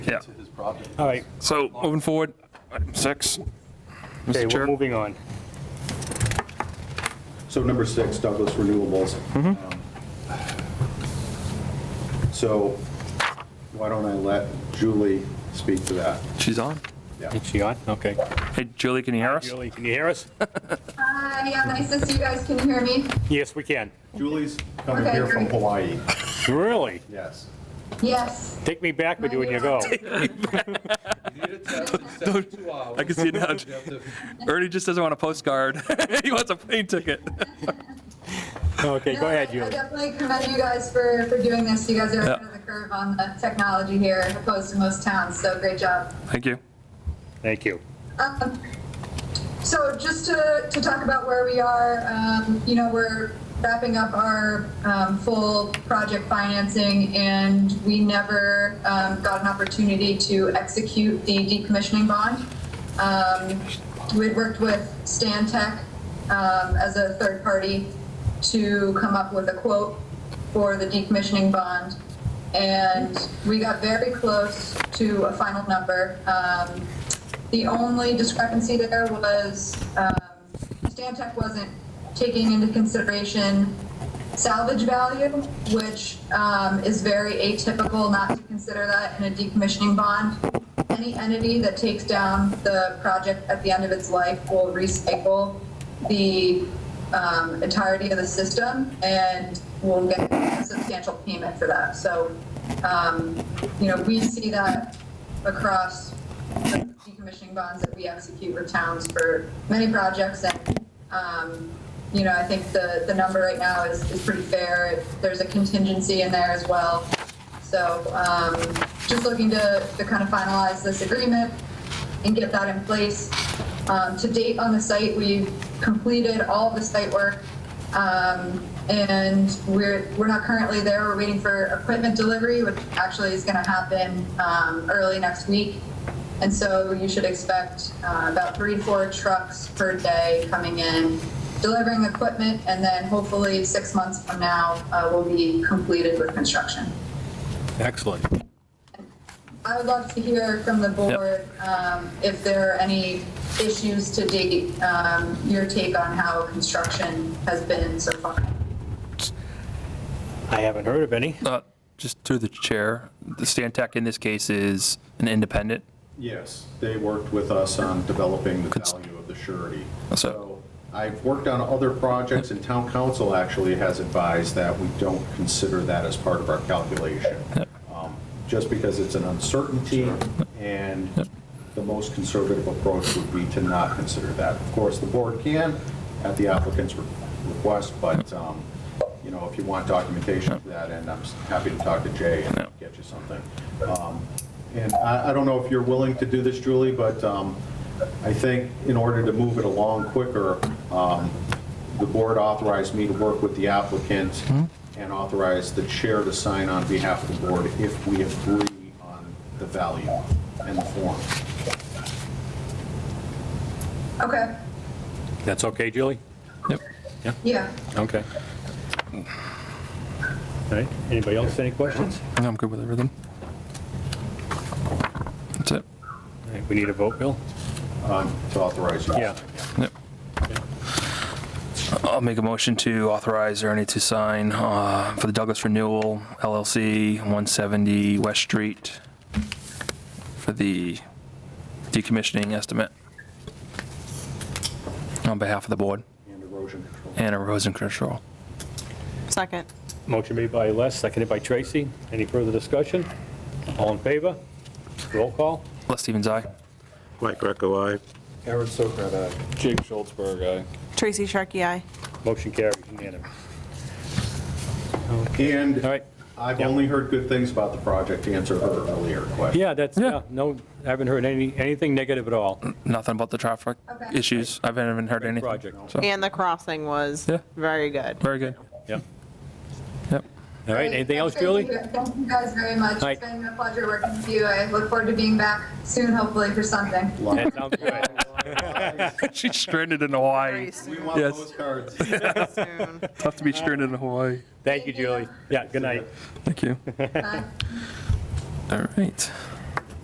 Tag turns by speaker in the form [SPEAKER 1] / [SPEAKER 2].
[SPEAKER 1] Yeah.
[SPEAKER 2] All right,
[SPEAKER 1] So moving forward, item six.
[SPEAKER 2] okay,
[SPEAKER 1] Mr.
[SPEAKER 2] we're
[SPEAKER 1] Chair,
[SPEAKER 2] moving on.
[SPEAKER 3] So number six, Douglas Renewables. Um, So why don't I let Julie speak to that?
[SPEAKER 1] she's on.
[SPEAKER 3] Yeah.
[SPEAKER 2] Is she on? Okay.
[SPEAKER 1] Hey, Julie, can you hear us?
[SPEAKER 2] Julie, can you hear us?
[SPEAKER 4] Hi, Uh, yeah, nice to see you guys. Can you hear me?
[SPEAKER 2] Yes, we can.
[SPEAKER 3] Julie's coming
[SPEAKER 4] Okay,
[SPEAKER 3] here from
[SPEAKER 4] great.
[SPEAKER 3] Hawaii,
[SPEAKER 2] Really?
[SPEAKER 3] yes.
[SPEAKER 4] Yes.
[SPEAKER 2] Take me back with you when you go.
[SPEAKER 1] I can see it now. Ernie just doesn't want a postcard. He wants a plane ticket.
[SPEAKER 2] Okay, go ahead,
[SPEAKER 4] I
[SPEAKER 2] Julie.
[SPEAKER 4] definitely commend you guys for, for doing this. You guys are
[SPEAKER 1] Yeah.
[SPEAKER 4] ahead of the curve on the technology here opposed to most towns, so great job.
[SPEAKER 1] Thank you.
[SPEAKER 2] Thank you.
[SPEAKER 4] Um, So just to, to talk about where we are, um, you know, we're wrapping up our um, full project financing and we never um, got an opportunity to execute the decommissioning bond. Um, We'd worked with Stan Tech um, as a third party to come up with a quote for the decommissioning bond. And we got very close to a final number. Um, the only discrepancy there was um, Stantec wasn't taking into consideration salvage value, which um, is very atypical not to consider that in a decommissioning bond. Any entity that takes down the project at the end of its life will recycle the um, entirety of the system and will get a substantial payment for that. So, um, you know, we see that across the decommissioning bonds that we execute with towns for many projects. And, um, you know, I think the, the number right now is, is pretty fair. There's a contingency in there as well. So um, just looking to, to kind of finalize this agreement and get that in place. Um, To date on the site, we've completed all the site work. um, And we're, we're not currently there, we're waiting for equipment delivery, which actually is going to happen um, early next week. And so you should expect uh, about three to four trucks per day coming in, delivering equipment, and then hopefully six months from now, uh, we'll be completed with construction.
[SPEAKER 2] Excellent.
[SPEAKER 4] I would love to hear from the board um, if there are any issues to date, um, your take on how construction has been so far.
[SPEAKER 2] I haven't heard of any.
[SPEAKER 1] Uh, Just through the chair, the Stantec in this case is an independent.
[SPEAKER 3] Yes, they worked with us on developing the
[SPEAKER 1] Good s-
[SPEAKER 3] value of the surety.
[SPEAKER 1] So-
[SPEAKER 3] So I've worked on other projects, and town council actually has advised that we don't consider that as part of our calculation, Um, just because it's an uncertainty, and the most conservative approach would be to not consider that. Of course, the board can, at the applicant's re- request, but, um, you know, if you want documentation to that end, I'm s- happy to talk to Jay and get you something. Um, And I, I don't know if you're willing to do this, Julie, but um, I think in order to move it along quicker, um, the board authorized me to work with the applicant and authorized the chair to sign on behalf of the board if we agree on the value and the form.
[SPEAKER 4] Okay,
[SPEAKER 2] That's okay, Julie?
[SPEAKER 1] Yep.
[SPEAKER 4] yeah.
[SPEAKER 2] Okay. All right, anybody else, any questions?
[SPEAKER 1] I'm good with everything. That's it.
[SPEAKER 2] All right, We need a vote, Bill?
[SPEAKER 3] Um, To authorize you.
[SPEAKER 2] Yeah.
[SPEAKER 1] Yep. I'll make a motion to authorize Ernie to sign uh, for the Douglas Renewal LLC, 170 West Street, for the decommissioning estimate on behalf of the board
[SPEAKER 3] And erosion control.
[SPEAKER 1] and erosion control.
[SPEAKER 5] Second.
[SPEAKER 2] Motion made by Les, seconded by Tracy. Any further discussion? All in favor? Roll call?
[SPEAKER 1] Les Stevens, aye.
[SPEAKER 6] Mike Greco, aye.
[SPEAKER 3] Aaron Sokrat, aye.
[SPEAKER 7] uh, Jake Schultzberg, aye.
[SPEAKER 5] Tracy Sharkey, aye.
[SPEAKER 2] Motion carries unanimous. All
[SPEAKER 3] And
[SPEAKER 2] right,
[SPEAKER 3] I've
[SPEAKER 2] Yeah.
[SPEAKER 3] only heard good things about the project, to answer her earlier question.
[SPEAKER 2] yeah, that's, yeah, no, I haven't heard any, anything negative at all.
[SPEAKER 1] nothing about the traffic
[SPEAKER 4] Okay.
[SPEAKER 1] issues. I haven't even heard anything.
[SPEAKER 2] project.
[SPEAKER 1] So,
[SPEAKER 5] And the crossing was
[SPEAKER 1] Yeah.
[SPEAKER 5] very good.
[SPEAKER 1] very good.
[SPEAKER 2] Yeah.
[SPEAKER 1] Yep.
[SPEAKER 2] All right, anything else,
[SPEAKER 4] Thank
[SPEAKER 2] Julie?
[SPEAKER 4] you. Thank you guys very much.
[SPEAKER 2] Right.
[SPEAKER 4] It's been a pleasure working with you. I look forward to being back soon, hopefully for something.
[SPEAKER 2] That sounds good.
[SPEAKER 1] She's stranded in Hawaii.
[SPEAKER 5] Very
[SPEAKER 3] We
[SPEAKER 5] soon.
[SPEAKER 3] want
[SPEAKER 1] Yes.
[SPEAKER 3] postcards.
[SPEAKER 5] soon.
[SPEAKER 1] Tough to be stranded in Hawaii.
[SPEAKER 2] Thank you, Julie. Yeah, good night.
[SPEAKER 1] Thank you.
[SPEAKER 4] Bye.
[SPEAKER 1] All right.